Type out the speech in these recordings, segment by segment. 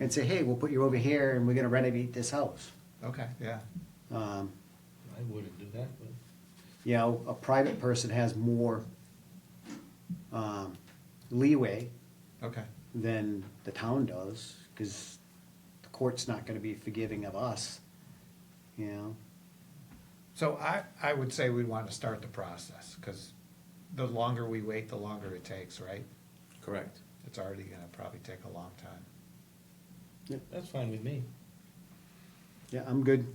and say, hey, we'll put you over here and we're gonna renovate this house. Okay, yeah. Um, I wouldn't do that, but. you know, a private person has more um, leeway Okay, than the town does, because the court's not gonna be forgiving of us, you know? so I, I would say we want to start the process, because the longer we wait, the longer it takes, right? Correct. It's already gonna probably take a long time. That's fine with me. Yeah, I'm good.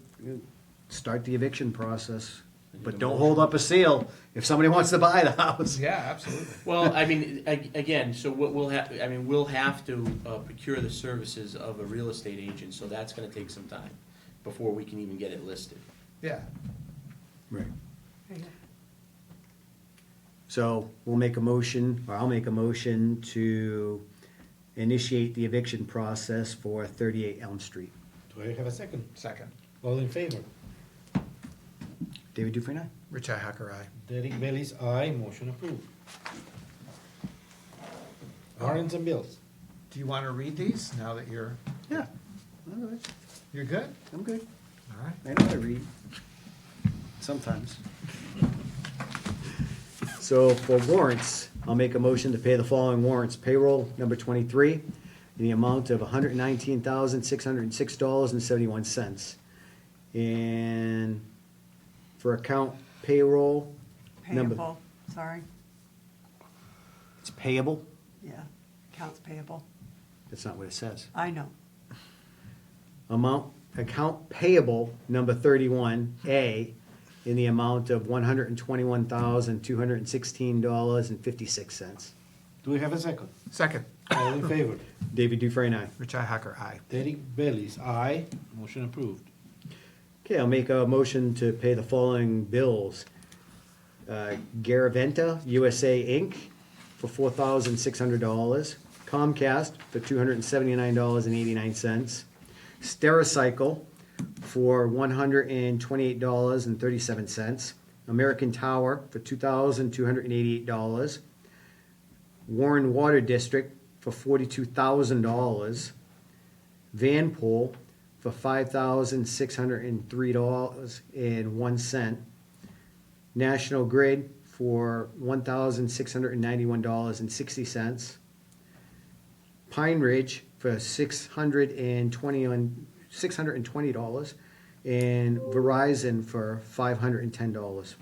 Start the eviction process, but Need a don't motion? hold up a seal if somebody wants to buy the house. Yeah, absolutely. Well, I mean, a- again, so what we'll have, I mean, we'll have to uh, procure the services of a real estate agent, so that's gonna take some time before we can even get it listed. Yeah, Right. So we'll make a motion, or I'll make a motion to initiate the eviction process for thirty-eight Elm Street. Do I have a second? second. All in favor? David Dufresne, aye? Richi Hacker, aye. Derek Bailey's aye, motion approved. Warrants and bills. Do you want to read these now that you're, Yeah. All right, you're good? I'm good. All right. I know how to read. Sometimes. So for warrants, I'll make a motion to pay the following warrants. Payroll number twenty-three, in the amount of hundred and nineteen thousand, six hundred and six dollars and seventy-one cents. And for account payroll, number- Payable, sorry, it's payable? yeah, accounts payable, That's not what it says. I know. Amount, account payable number thirty-one A, in the amount of one hundred and twenty-one thousand, two hundred and sixteen dollars and fifty-six cents. Do we have a second? Second. All in favor? David Dufresne, aye. Richi Hacker, aye. Derek Bailey's aye, motion approved. Okay, I'll make a motion to pay the following bills. Uh, Garaventa USA Inc. for four thousand six hundred dollars. Comcast for two hundred and seventy-nine dollars and eighty-nine cents. Stericycle for one hundred and twenty-eight dollars and thirty-seven cents. American Tower for two thousand two hundred and eighty-eight dollars. Warren Water District for forty-two thousand dollars. Vanpool for five thousand six hundred and three dollars and one cent. National Grid for one thousand six hundred and ninety-one dollars and sixty cents. Pine Ridge for six hundred and twenty on, six hundred and twenty dollars. And Verizon for five hundred and ten dollars.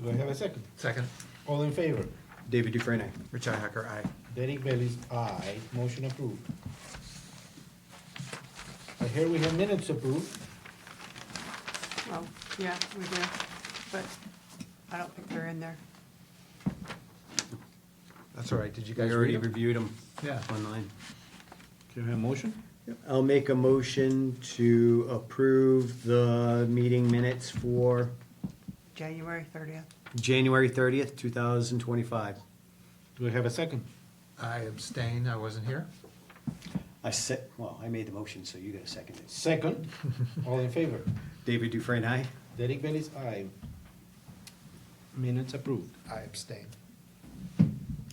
Do I have a second? Second. All in favor? David Dufresne, aye. Richi Hacker, aye. Derek Bailey's aye, motion approved. I hear we have minutes approved. Well, yeah, we do, but I don't think they're in there. That's all right. Did you I guys already read them? reviewed them Yeah. online. Can we have a motion? I'll make a motion to approve the meeting minutes for January thirtieth, January thirtieth, two thousand twenty-five. Do we have a second? I abstain. I wasn't here. I said, well, I made the motion, so you gotta second it. Second, all in favor? David Dufresne, aye? Derek Bailey's aye. Minutes approved. I abstain.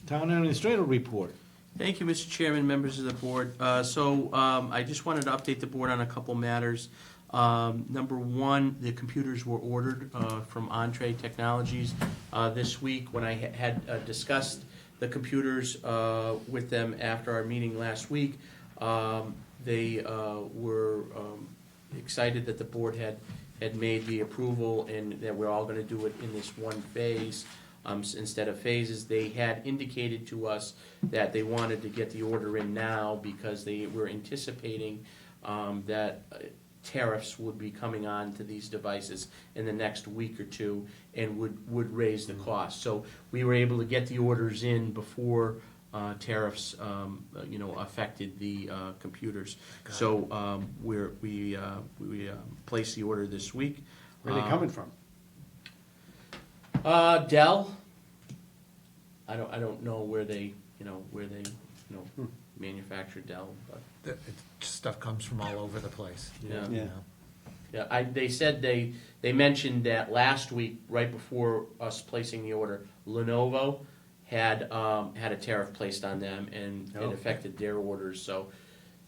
Town administrator report. Thank you, Mr. Chairman, members of the board. Uh, So um, I just wanted to update the board on a couple matters. Um, Number one, the computers were ordered uh, from Entree Technologies uh, this week. When I ha- had uh, discussed the computers uh, with them after our meeting last week, um, they uh, were um, excited that the board had, had made the approval and that we're all gonna do it in this one phase um, s- instead of phases. They had indicated to us that they wanted to get the order in now because they were anticipating um, that uh, tariffs would be coming on to these devices in the next week or two and would, would raise the cost. So we were able to get the orders in before uh, tariffs, um, uh, you know, affected the uh, computers. So um, we're, we, uh, we uh, placed the order this week. Where are they Um, coming from? uh, Dell. I don't, I don't know where they, you know, where they, you Hmm. know, manufacture Dell, but, The- it- Stuff comes from all over the place. yeah. Yeah. Yeah, I, they said they, they mentioned that last week, right before us placing the order, Lenovo had, um, had a tariff placed on them and Oh. it affected their orders, so